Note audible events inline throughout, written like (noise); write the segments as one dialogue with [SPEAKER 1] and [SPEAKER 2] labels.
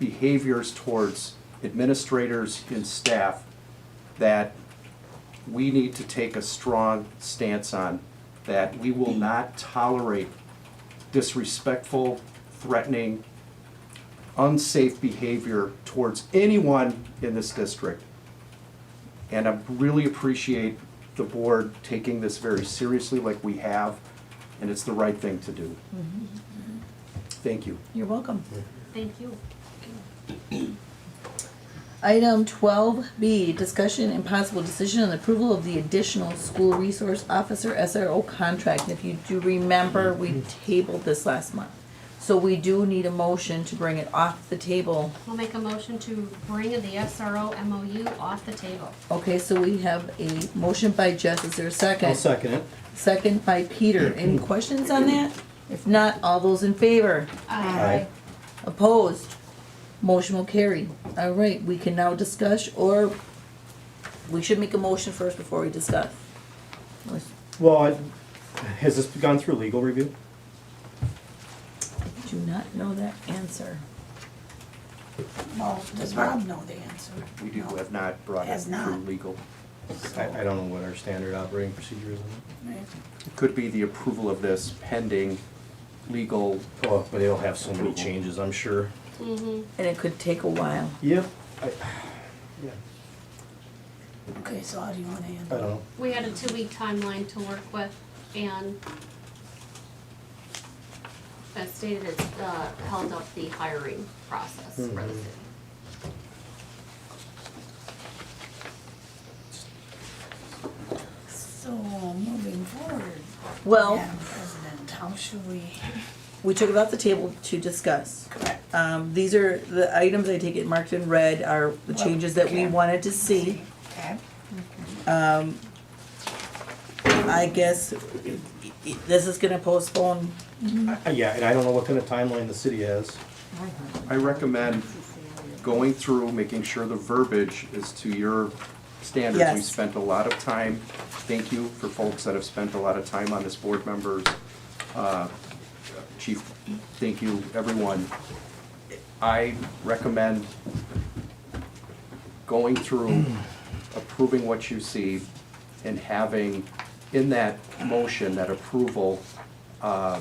[SPEAKER 1] behaviors towards administrators and staff that we need to take a strong stance on, that we will not tolerate disrespectful, threatening, unsafe behavior towards anyone in this district. And I really appreciate the board taking this very seriously like we have, and it's the right thing to do. Thank you.
[SPEAKER 2] You're welcome.
[SPEAKER 3] Thank you.
[SPEAKER 2] Item twelve B, discussion and possible decision on approval of the additional school resource officer SRO contract. And If you do remember, we tabled this last month. So we do need a motion to bring it off the table.
[SPEAKER 3] We'll make a motion to bring the SRO MOU off the table.
[SPEAKER 2] Okay, so we have a motion by Jess, is there a second?
[SPEAKER 4] I'll second it.
[SPEAKER 2] Second by Peter. Any questions on that? If not, all those in favor?
[SPEAKER 3] Aye.
[SPEAKER 2] Opposed? Motion will carry. All right, we can now discuss, or we should make a motion first before we discuss.
[SPEAKER 4] Well, I- has this gone through legal review?
[SPEAKER 2] I Do not know that answer.
[SPEAKER 5] Well, does Rob know the answer?
[SPEAKER 1] We do have not brought it
[SPEAKER 5] Has not.
[SPEAKER 1] through legal.
[SPEAKER 4] I, I don't know what our standard operating procedure is on
[SPEAKER 5] Right.
[SPEAKER 1] It could be the approval of this pending legal,
[SPEAKER 4] that. Oh, but it'll have so many changes, I'm sure.
[SPEAKER 2] And it could take a while.
[SPEAKER 4] Yep. I, (sighs) yeah,
[SPEAKER 5] Okay, so how do you
[SPEAKER 4] I
[SPEAKER 5] wanna
[SPEAKER 4] don't
[SPEAKER 5] handle it?
[SPEAKER 4] know.
[SPEAKER 3] We had a two-week timeline to work with, and as stated, it's uh, held up the hiring process for the
[SPEAKER 4] Mhm.
[SPEAKER 3] city.
[SPEAKER 5] So, moving forward,
[SPEAKER 2] Well,
[SPEAKER 5] Madam President, how should we?
[SPEAKER 2] we took it off the table to discuss.
[SPEAKER 5] Correct.
[SPEAKER 2] Um, these are, the items I take it marked in red are the changes that we
[SPEAKER 5] Okay.
[SPEAKER 2] wanted to see.
[SPEAKER 5] Okay,
[SPEAKER 2] I guess i- i- this is gonna postpone,
[SPEAKER 4] I- I- Yeah, and I don't know what kind of timeline the city has.
[SPEAKER 1] I recommend going through, making sure the verbiage is to your standards. We
[SPEAKER 2] Yes.
[SPEAKER 1] spent a lot of time, thank you for folks that have spent a lot of time on this, board members, uh, chief, thank you, everyone. I recommend going through, approving what you see, and having in that motion, that approval, uh,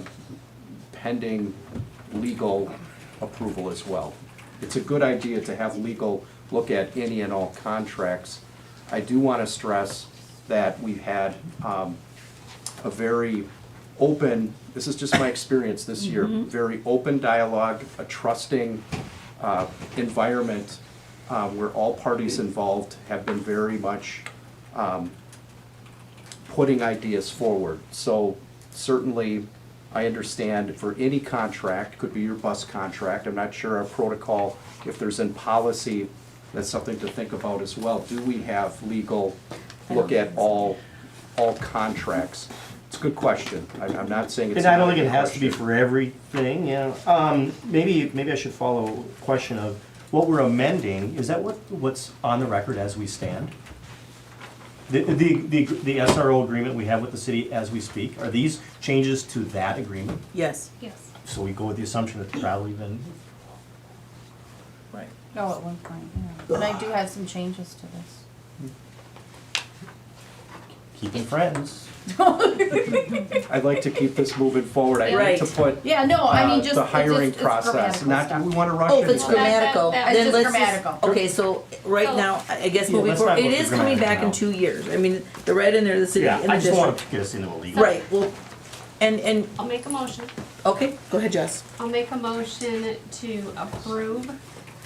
[SPEAKER 1] pending legal approval as well. It's a good idea to have legal look at any and all contracts. I do want to stress that we've had um, a very open, this is just my experience this year, very open dialogue, a trusting uh, environment uh, where all parties involved have been very much um, putting ideas forward. So certainly, I understand for any contract, could be your bus contract, I'm not sure our protocol, if there's in policy, that's something to think about as well. Do we have legal look at all, all contracts? It's a good question. I'm, I'm not saying it's
[SPEAKER 4] And I don't
[SPEAKER 1] not a
[SPEAKER 4] think it
[SPEAKER 1] good
[SPEAKER 4] has to be
[SPEAKER 1] question.
[SPEAKER 4] for everything, yeah. Um, maybe, maybe I should follow a question of what we're amending, is that what, what's on the record as we stand? The, the, the, the SRO agreement we have with the city as we speak, are these changes to that agreement?
[SPEAKER 2] yes.
[SPEAKER 3] Yes.
[SPEAKER 4] So we go with the assumption it's probably been,
[SPEAKER 2] Right.
[SPEAKER 6] No, at one point, yeah. But I do have some changes to this.
[SPEAKER 4] keeping friends.
[SPEAKER 1] I'd like to keep this moving forward, I
[SPEAKER 2] Right.
[SPEAKER 1] hate to put
[SPEAKER 6] Yeah, no, I
[SPEAKER 1] uh,
[SPEAKER 6] mean, just,
[SPEAKER 1] the
[SPEAKER 6] it's just,
[SPEAKER 1] hiring
[SPEAKER 6] it's
[SPEAKER 1] process,
[SPEAKER 6] grammatical
[SPEAKER 1] not, we
[SPEAKER 6] stuff.
[SPEAKER 1] want to rush
[SPEAKER 2] Oh, if
[SPEAKER 1] anything.
[SPEAKER 2] it's
[SPEAKER 3] Well, that-
[SPEAKER 2] grammatical,
[SPEAKER 3] that-
[SPEAKER 2] then
[SPEAKER 6] that's
[SPEAKER 2] let's
[SPEAKER 6] just grammatical.
[SPEAKER 2] Okay, so right
[SPEAKER 3] So-
[SPEAKER 2] now, I I guess
[SPEAKER 4] Yeah,
[SPEAKER 2] moving
[SPEAKER 4] let's
[SPEAKER 2] forward,
[SPEAKER 4] not
[SPEAKER 2] it
[SPEAKER 4] look at
[SPEAKER 2] is coming back in
[SPEAKER 4] grammatical
[SPEAKER 2] two years. I mean, the red in there, the city
[SPEAKER 4] Yeah,
[SPEAKER 2] and
[SPEAKER 4] I
[SPEAKER 2] the
[SPEAKER 4] just want
[SPEAKER 2] district.
[SPEAKER 4] to get us into a legal.
[SPEAKER 2] Right, well, and, and,
[SPEAKER 3] I'll make a motion.
[SPEAKER 2] okay, go ahead, Jess.
[SPEAKER 3] I'll make a motion to approve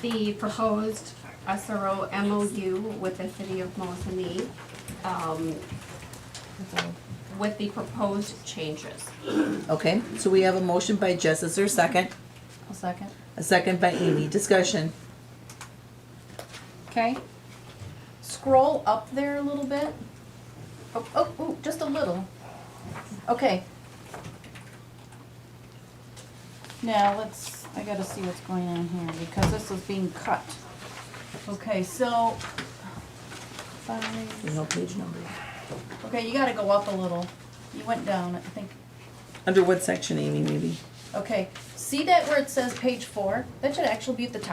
[SPEAKER 3] the proposed SRO MOU with the city of Mosinee, um, with the proposed changes.
[SPEAKER 2] Okay, so we have a motion by Jess, is there a second?
[SPEAKER 6] A second.
[SPEAKER 2] A second by Amy, discussion.
[SPEAKER 6] Okay. Scroll up there a little bit. Oh, oh, ooh, just a little. Okay. Now, let's, I gotta see what's going on here, because this is being cut. Okay, so,
[SPEAKER 2] There's
[SPEAKER 6] five,
[SPEAKER 2] no page number.
[SPEAKER 6] okay, you gotta go up a little. You went down, I think.
[SPEAKER 2] Under what section, Amy, maybe?
[SPEAKER 6] Okay, see that where it says page four? That should actually be at the top